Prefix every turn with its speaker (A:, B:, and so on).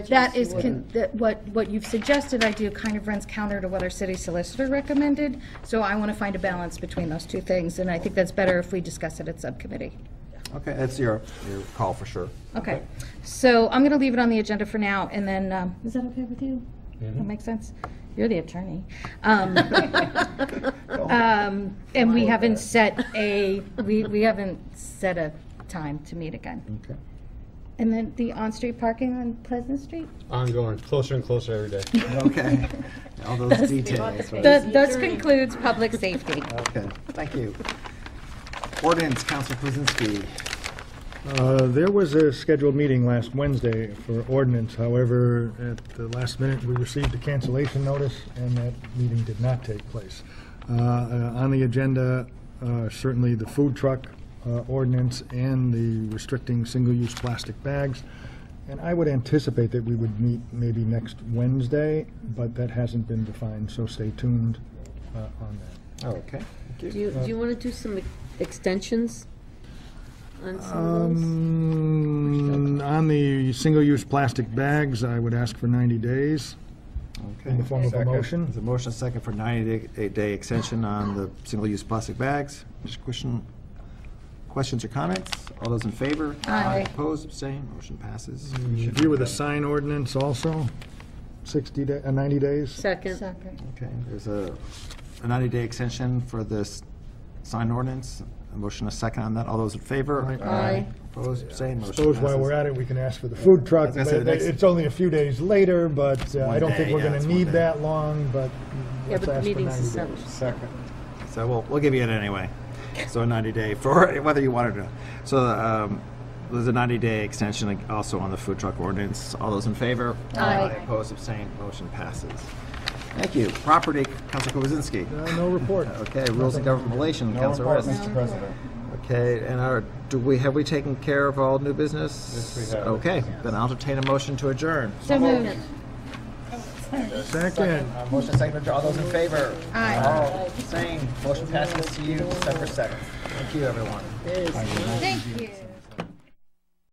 A: That is, con- that what, what you've suggested I do kind of runs counter to what our city solicitor recommended, so I want to find a balance between those two things, and I think that's better if we discuss it at subcommittee.
B: Okay, that's your, your call for sure.
A: Okay, so I'm going to leave it on the agenda for now, and then, um, is that okay with you? That makes sense? You're the attorney. Um, um, And we haven't set a, we, we haven't set a time to meet again.
B: Okay.
A: And then the on-street parking on Pleasant Street?
C: Ongoing, closer and closer every day.
B: Okay, all those details, right?
A: That, that concludes public safety.
B: Okay, thank you. Ordinance, Council Kuzinski.
D: Uh, There was a scheduled meeting last Wednesday for ordinance, however, at the last minute, we received a cancellation notice, and that meeting did not take place. Uh, uh, On the agenda, uh, certainly the food truck uh, ordinance and the restricting single-use plastic bags, and I would anticipate that we would meet maybe next Wednesday, but that hasn't been defined, so stay tuned uh, on that.
B: Oh, Okay, thank
E: Do
B: you.
E: you, do you want to do some ex- extensions on some of those?
D: Um, On the single-use plastic bags, I would ask for 90 days in the
B: Okay.
D: form of a
C: Second.
D: motion.
B: There's a motion second for 90-day extension on the single-use plastic bags. Just question, questions or comments? All those in favor?
A: Aye.
B: Opposed, abstained, motion passes.
D: Review with a sign ordinance also, 60, da- uh, 90 days.
E: Second,
A: Second.
B: Okay, there's a a 90-day extension for this sign ordinance. A motion a second on that. All those in favor?
D: Aye.
E: Aye.
B: Opposed, abstained, motion passes.
D: Suppose while we're at it, we can ask for the food truck,
B: I was gonna say,
D: but
B: the next-
D: it's only a few days later, but uh, I
B: One
D: don't think
B: day,
D: we're
B: yeah,
D: going
B: it's
D: to
B: one
D: need
B: day.
D: that long, but
E: yeah,
D: let's
E: but the
D: ask for 90
E: meeting's
D: days.
E: established.
B: Second. So we'll, we'll give you it anyway. So a 90-day for, whether you want it or not. So um, there's a 90-day extension also on the food truck ordinance. All those in favor?
A: Aye.
B: Opposed, abstained, motion passes. Thank you. Property, Councilor Kuzinski.
D: Uh, No report.
B: Okay, rules of government relation, Councilor Riss.
C: President.
B: Okay, and our, do we, have we taken care of all new business?
C: Yes, we have.
B: Okay, then I'll entertain a motion to adjourn.
A: So moved.
D: Second.
B: Uh, Motion second, to adjourn. all those in favor?
A: Aye.
B: All abstained, motion passes to you December 7th. Thank you, everyone.
A: Thank you.